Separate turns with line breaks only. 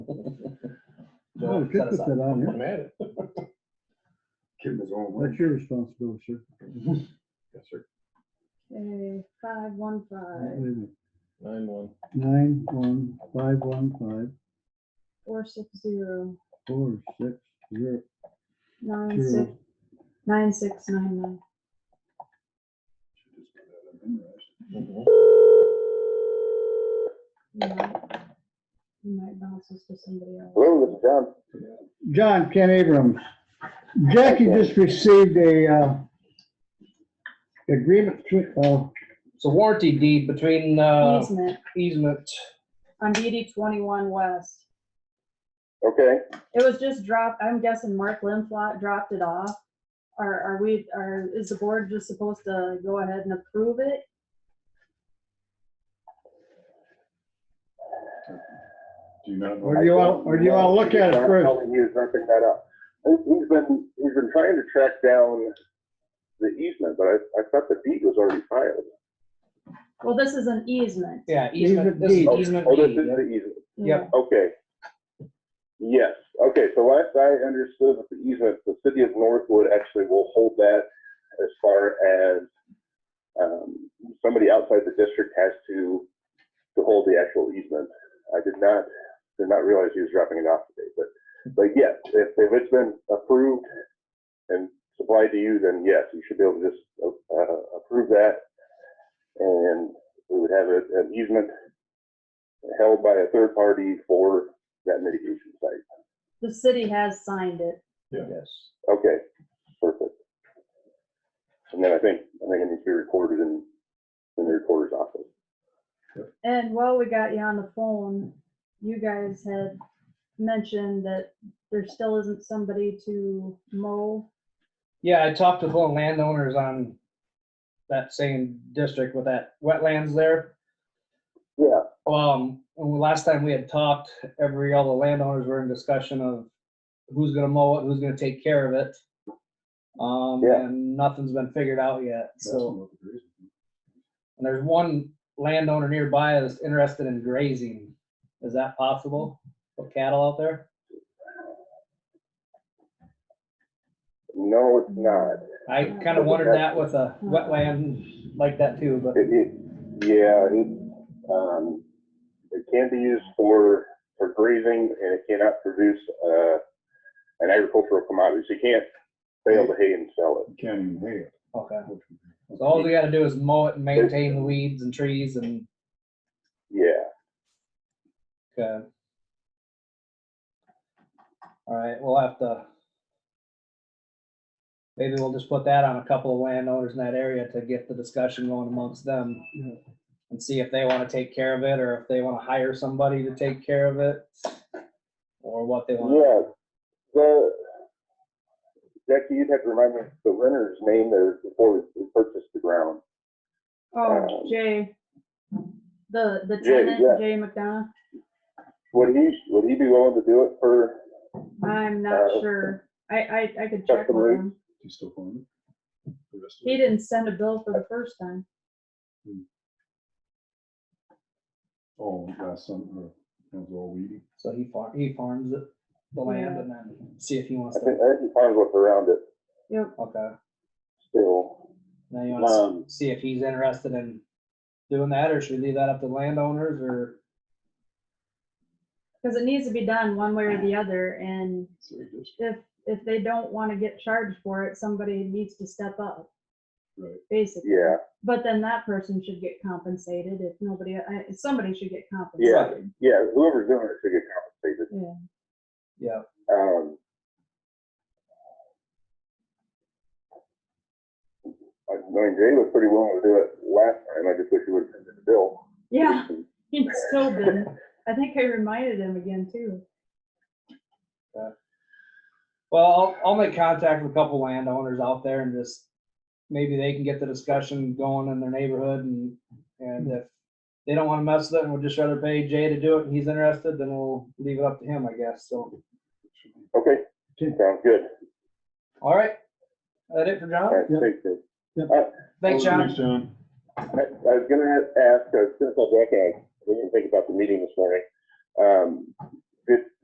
Oh, we
to
could
set
put that
aside.
on here.
I'm at it. Give him his own way.
That's your responsibility, sir.
Yes, sir.
Okay, five one five,
Nine one.
Nine, one, five, one, five,
four six zero,
four, six, zero,
nine six,
zero.
nine six nine nine.
Mhm.
You might- You might bounce this to somebody else.
Hello, this is John.
John, Ken Abrams. Jackie just received a, uh, agreement, between- uh,
It's a warranty deed between uh,
Easement
easement.
on DD twenty-one west.
Okay,
It was just dropped, I'm guessing Mark Limflot dropped it off. Are, are we, are, is the board just supposed to go ahead and approve it?
Do you not know?
or do you want, or do you want to look at it
John
first?
Kelly, he was ramping that up. He- He's been, he's been trying to track down the easement, but I, I thought the deed was already filed.
Well, this is an easement.
Yeah,
Easement
easement. This is
deed.
Oh,
easement
Oh, this
deed.
is the easement,
Yep.
okay. Yes, okay, so last I understood with the easement, the city of Northwood actually will hold that as far as, um, somebody outside the district has to, to hold the actual easement. I did not, did not realize he was dropping it off today, but, but yes, if, if it's been approved and supplied to you, then yes, you should be able to just, uh, approve that. And we would have a- an easement held by a third party for that mitigation site.
The city has signed it.
Yes.
Okay, perfect. And then I think, I think it needs to be recorded in, in the recorder's office.
And while we got you on the phone, you guys had mentioned that there still isn't somebody to mow.
Yeah, I talked with one landowners on that same district with that wetlands there.
Yeah,
Um, when the last time we had talked, every, all the landowners were in discussion of who's gonna mow it, who's gonna take care of it. Um,
Yeah.
and nothing's been figured out yet, so.
So.
And there's one landowner nearby that's interested in grazing. Is that possible? Put cattle out there?
no, it's not.
I kind of wondered that with a wetland like that too, but
It, it, yeah, it, um, it can be used for, for grazing and it cannot produce, uh, an agricultural commodity. So you can't bale the hay and sell it.
Can't even hear. it.
okay. So all we gotta do is mow it and maintain the weeds and trees and,
Yeah.
uh, all right, we'll have to. Maybe we'll just put that on a couple of landowners in that area to get the discussion going amongst them.
Yeah.
And see if they wanna take care of it or if they wanna hire somebody to take care of it. Or what they want.
Yeah, the, Jackie, you'd have to remind me of the renter's name there before we- we purchased the ground.
Oh,
Um,
Jay, the, the
Jay, yeah.
tenant, Jay McDonough,
Would he, would he be willing to do it for,
I'm
Uh,
not sure. I, I, I could check with
Customary.
him.
You still calling it? The rest of
He
it?
didn't send a bill for the first time.
Oh, last summer, that was all weedy.
So he farm, he farms it, the land
Yeah.
and then see if he wants
I think,
to,
I think he probably looked around it
Yep,
okay.
still.
Now you
Um,
want to see if he's interested in doing that or should we leave that up to landowners or?
because it needs to be done one way or the other, and
So we just-
if, if they don't want to get charged for it, somebody needs to step up,
Right.
basically.
Yeah,
But then that person should get compensated if nobody, I- somebody should get
Yeah.
compensated.
yeah, whoever's doing it should get compensated.
Yeah.
Yeah,
Um. I mean, Jay was pretty willing to do it last time. I just wish he would have sent it to Bill.
Yeah, he still didn't. I think I reminded him again too.
well, I'll, I'll make contact with a couple landowners out there and just, maybe they can get the discussion going in their neighborhood and, and if they don't want to mess with it and would just rather pay Jay to do it and he's interested, then we'll leave it up to him, I guess, so.
Okay,
Okay.
sounds good.
All right, that it for
All
John?
right,
Yep.
thanks, Jay.
Thanks, John.
Thanks, John.
I I was gonna have- ask, uh, since I'm back, I didn't think about the meeting this morning. Um, Did,